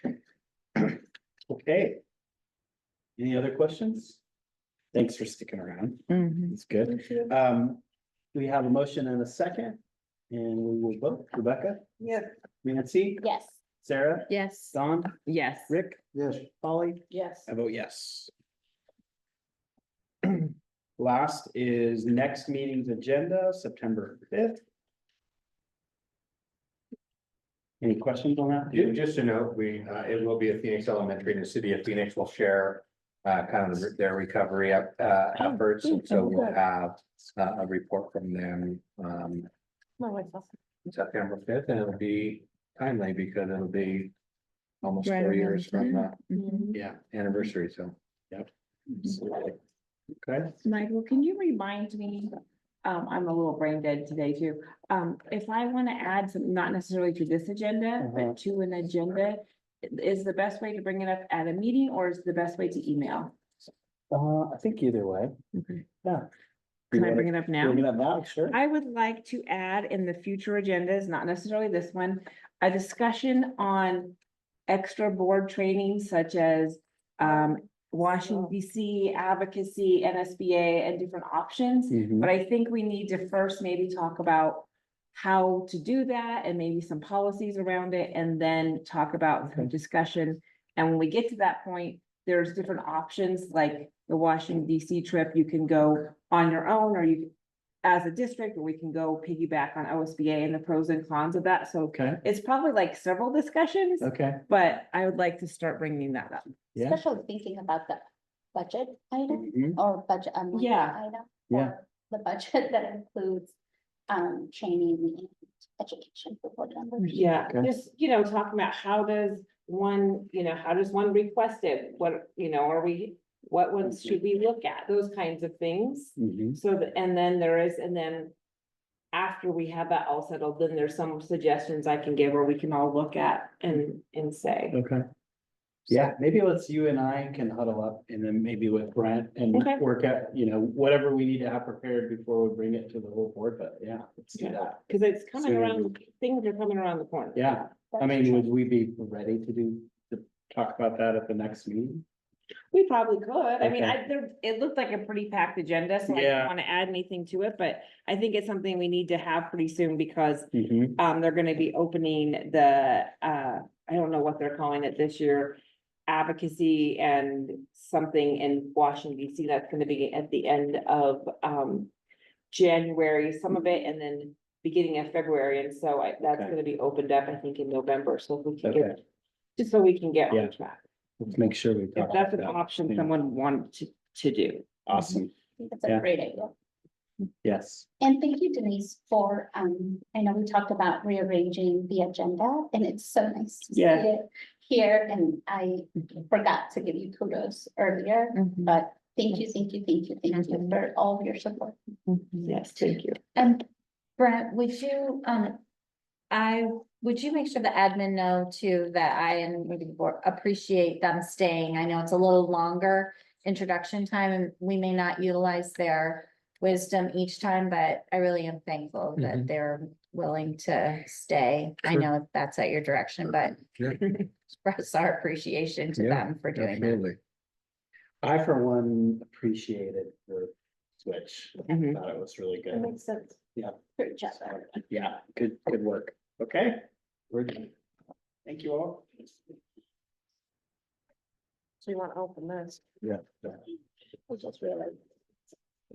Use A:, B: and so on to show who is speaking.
A: Okay. Any other questions? Thanks for sticking around.
B: Mhm.
A: It's good. Um, we have a motion and a second. And we will vote. Rebecca?
C: Yes.
A: Nancy?
D: Yes.
A: Sarah?
B: Yes.
A: Don?
B: Yes.
A: Rick?
C: Yes.
A: Polly?
D: Yes.
A: I vote yes. Last is next meeting's agenda, September fifth. Any questions on that?
E: Ju- Just to note, we, uh, it will be at Phoenix Elementary and the city of Phoenix will share uh, kind of their recovery up,
B: Oh,
E: uh, efforts. And so we'll have uh, a report from them um, September fifth and it'll be timely because it'll be almost
B: Right
E: four
B: around
E: years
B: the
E: from the
B: time. Mhm.
A: Yeah.
E: anniversary, so.
A: Okay,
D: Michael, can you remind me, um, I'm a little brain dead today too. Um, if I want to add some, not necessarily to this agenda,
A: Uh-huh.
D: but to an agenda, is the best way to bring it up at a meeting or is the best way to email?
A: uh, I think either way.
D: Okay.
A: Yeah.
D: Can I bring it up now?
A: Bring it up now, sure.
D: I would like to add in the future agendas, not necessarily this one, a discussion on extra board training such as um, Washington DC advocacy, NSBA and different options.
A: Mhm.
D: But I think we need to first maybe talk about how to do that and maybe some policies around it and then talk about some discussion. And when we get to that point, there's different options, like the Washington DC trip, you can go on your own or you as a district, or we can go piggyback on OSBA and the pros and cons of that. So
A: Okay,
D: it's probably like several discussions,
A: okay,
D: but I would like to start bringing that up.
A: yeah,
F: Especially thinking about the budget item
D: Mm-hmm.
A: Mhm.
F: or budget amendment
D: Yeah.
F: item.
A: Yeah.
F: or The budget that includes um training and education for board members.
D: Yeah,
A: Okay.
D: just, you know, talking about how does one, you know, how does one request it? What, you know, are we, what ones should we look at? Those kinds of things.
A: Mhm.
D: So, th- and then there is, and then after we have that all settled, then there's some suggestions I can give or we can all look at and, and say.
A: okay. Yeah, maybe let's, you and I can huddle up and then maybe with Brent and
D: Okay.
A: work out, you know, whatever we need to have prepared before we bring it to the whole board, but yeah, let's do
D: Yeah.
A: that.
D: Cause it's coming
A: Soon.
D: around, things are coming around the corner.
A: Yeah, I
F: That's
A: mean,
F: true.
A: would we be ready to do, to talk about that at the next meeting?
D: We probably could. I mean,
A: Okay.
D: I, there, it looked like a pretty packed agenda, so I
A: Yeah.
D: don't want to add anything to it, but I think it's something we need to have pretty soon because
A: Mhm.
D: um, they're gonna be opening the, uh, I don't know what they're calling it this year, advocacy and something in Washington DC that's gonna be at the end of um January, some of it, and then beginning of February. And so I, that's
A: Okay.
D: gonna be opened up, I think, in November, so if we can get,
A: Okay,
D: just so we can get
A: Yeah.
D: on track.
A: let's make sure we
D: If
A: talk about
D: that's an
A: that.
D: option
A: yeah.
D: someone wanted to, to do.
A: Awesome,
F: I think That's
A: yeah.
F: a great idea.
A: yes.
F: And thank you Denise for, um, I know we talked about rearranging the agenda and it's so nice to see
D: Yeah.
F: it here and I forgot to give you kudos earlier,
E: Mm-hmm.
F: but thank you, thank you, thank you, thank you
B: Mhm.
F: for all of your support.
D: Yes, thank you.
G: And Brent, would you, um, I, would you make sure the admin know too that I and maybe the board appreciate them staying? I know it's a little longer introduction time and we may not utilize their wisdom each time, but I really am thankful
A: Mhm.
G: that they're willing to stay. I
E: Mm-hmm. Sure.
G: know that's at your direction, but
E: Yeah.
G: express our appreciation to
E: Yeah,
G: them for doing that.
E: Absolutely.
A: I for one appreciated the switch. I
D: Mhm.
A: Thought it was really
C: That
A: good.
C: makes sense.
F: Great job. everyone.
A: Yeah, good, good work. Okay, we're done. Thank you all.
C: So you want to open this?
A: Yeah.
C: I just realized.